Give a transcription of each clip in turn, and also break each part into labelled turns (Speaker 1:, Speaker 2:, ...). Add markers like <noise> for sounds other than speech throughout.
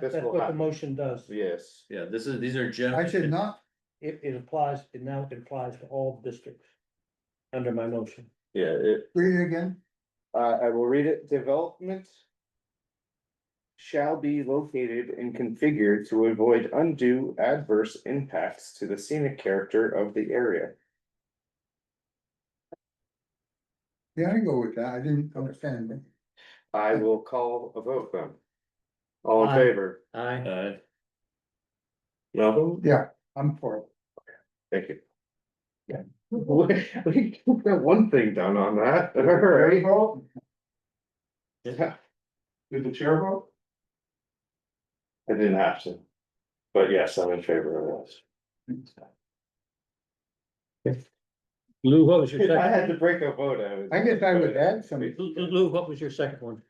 Speaker 1: This
Speaker 2: That's
Speaker 1: will
Speaker 2: what the
Speaker 1: happen.
Speaker 2: motion does.
Speaker 1: Yes,
Speaker 3: Yeah, this is, these are
Speaker 4: I should
Speaker 3: general,
Speaker 4: not,
Speaker 2: It, it applies, it now applies to all districts under my motion.
Speaker 1: yeah, it,
Speaker 4: read it again,
Speaker 1: uh, I will read it, development. Shall be located and configured to avoid undue adverse impacts to the scenic character of the area.
Speaker 4: yeah, I go with that, I didn't understand it.
Speaker 1: I will call a vote then. All in
Speaker 2: Aye.
Speaker 1: favor?
Speaker 2: Aye.
Speaker 3: uh,
Speaker 1: No,
Speaker 4: Yeah, I'm for it.
Speaker 1: thank you. Yeah, <laughs> we, we got one thing done on that, alright. <laughs> Yeah.
Speaker 4: Did the chair vote?
Speaker 1: I didn't have to. But yes, I'm in favor of this.
Speaker 2: Lou, what <laughs> was
Speaker 1: If I had to break a vote, I would.
Speaker 4: I guess I would add some,
Speaker 2: Lou, what was your second one?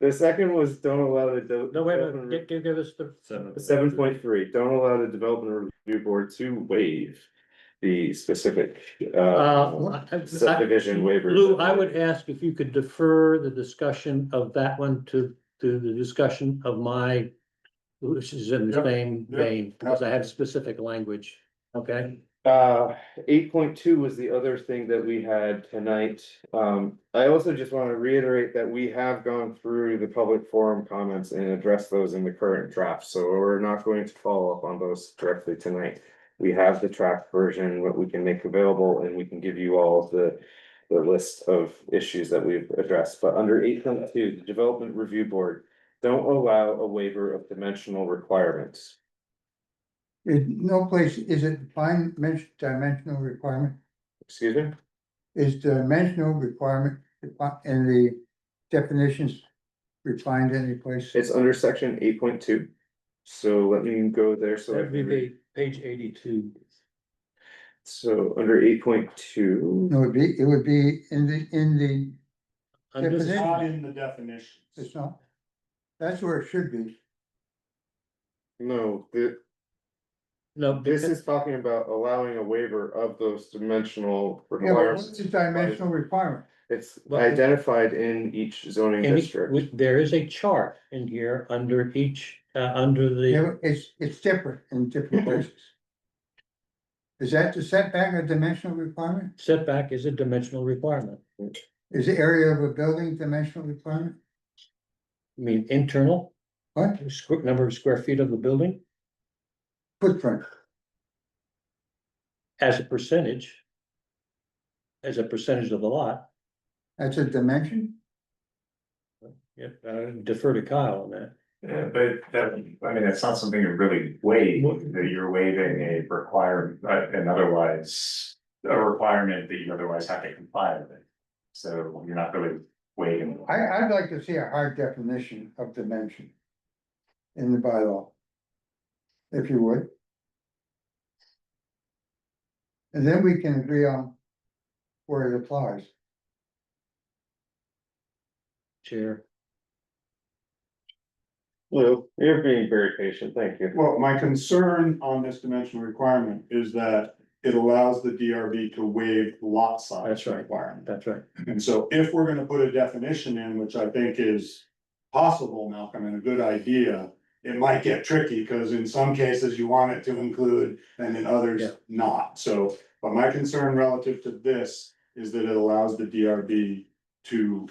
Speaker 1: The second was don't allow the.
Speaker 2: No, wait, a minute. Give- give, give us the,
Speaker 3: seven.
Speaker 1: Seven point three, don't allow the development review board to waive the specific, uh,
Speaker 2: uh. <laughs> I- I-
Speaker 1: subdivision waivers.
Speaker 2: Lou, I would ask if you could defer the discussion of that one to, to the discussion of my, which is in the
Speaker 4: Yep,
Speaker 2: same
Speaker 4: yep.
Speaker 2: vein, because I have specific language, okay?
Speaker 1: Uh, eight point two was the other thing that we had tonight. Um, I also just want to reiterate that we have gone through the public forum comments and addressed those in the current draft, so we're not going to follow up on those directly tonight. We have the draft version, what we can make available, and we can give you all of the, the list of issues that we've addressed. But under eight point two, the Development Review Board, don't allow a waiver of dimensional requirements.
Speaker 4: it, no place, is it defined men- dimensional requirement?
Speaker 1: Excuse me?
Speaker 4: Is dimensional requirement defi- in the definitions refined any place?
Speaker 1: It's under section eight point two. So let me go there, so. I
Speaker 2: That'd be
Speaker 1: can read.
Speaker 2: the page eighty-two.
Speaker 1: So under eight point two,
Speaker 4: No, it'd be, it would be in the, in the,
Speaker 2: I'm just-
Speaker 4: Definition.
Speaker 5: Not in the definitions.
Speaker 4: it's not. That's where it should be,
Speaker 1: no, th-
Speaker 2: No,
Speaker 1: this is talking about allowing a waiver of those dimensional
Speaker 4: yeah, but what's
Speaker 1: requirements.
Speaker 4: the dimensional requirement?
Speaker 1: It's identified in each zoning
Speaker 2: Any-
Speaker 1: district.
Speaker 2: we- There is a chart in here under each, uh, under
Speaker 4: Yeah,
Speaker 2: the,
Speaker 4: but it's, it's different in different places. Is that the setback a dimensional requirement?
Speaker 2: setback is a dimensional requirement.
Speaker 4: Is the area of a building dimensional requirement?
Speaker 2: I mean, internal,
Speaker 4: What
Speaker 2: squ- number of square feet of the building
Speaker 4: footprint?
Speaker 2: as a percentage. As a percentage of the lot,
Speaker 4: That's a dimension?
Speaker 2: yeah, I defer to Kyle on that.
Speaker 6: Yeah, but that, I mean, that's not something you really waive, that you're waiving a require, uh, an otherwise, a requirement that you otherwise have to comply with it. So you're not really waiving.
Speaker 4: I, I'd like to see a hard definition of dimension in the bylaw. If you would. And then we can agree on where it applies.
Speaker 2: Chair,
Speaker 1: Lou, you're being very patient, thank you.
Speaker 5: Well, my concern on this dimensional requirement is that it allows the DRB to waive lot size.
Speaker 2: That's right.
Speaker 5: Requirement.
Speaker 2: that's right.
Speaker 5: And so if we're gonna put a definition in, which I think is possible, Malcolm, and a good idea, it might get tricky, because in some cases you want it to include, and in
Speaker 2: Yeah.
Speaker 5: others not. So, but my concern relative to this is that it allows the DRB to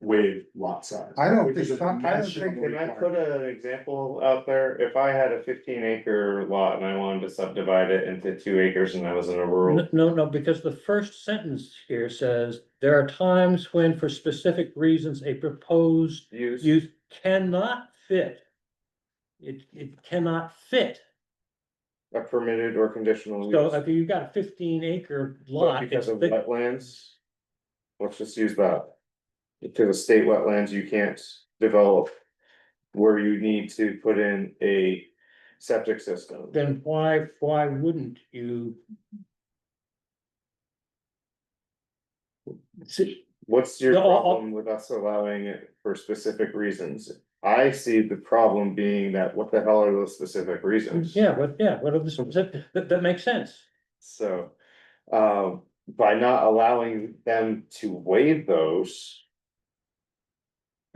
Speaker 5: waive lot size.
Speaker 4: I don't
Speaker 5: which is
Speaker 4: think
Speaker 5: a
Speaker 4: so. I don't think-
Speaker 5: dimensional
Speaker 1: Can I put
Speaker 5: requirement.
Speaker 1: an example out there? If I had a fifteen acre lot and I wanted to subdivide it into two acres and I was in a rural.
Speaker 2: No, no, no, because the first sentence here says, there are times when for specific reasons a proposed
Speaker 1: Use.
Speaker 2: you cannot fit. It, it cannot fit.
Speaker 1: A permitted or conditional use.
Speaker 2: So if you've got a fifteen acre
Speaker 1: But
Speaker 2: lot, it's
Speaker 1: Because of
Speaker 2: thick-
Speaker 1: wetlands. Let's just use that. Because of state wetlands, you can't develop. Where you need to put in a septic system.
Speaker 2: then why, why wouldn't you? See,
Speaker 1: What's your
Speaker 2: No, I'll- I'll-
Speaker 1: problem with us allowing it for specific reasons? I see the problem being that what the hell are those specific reasons?
Speaker 2: yeah, what, yeah, what are the, specific- that, that makes sense.
Speaker 1: So, um, by not allowing them to waive those.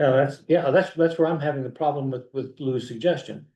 Speaker 2: Yeah, that's, yeah, that's, that's where I'm having the problem with, with Lou's suggestion.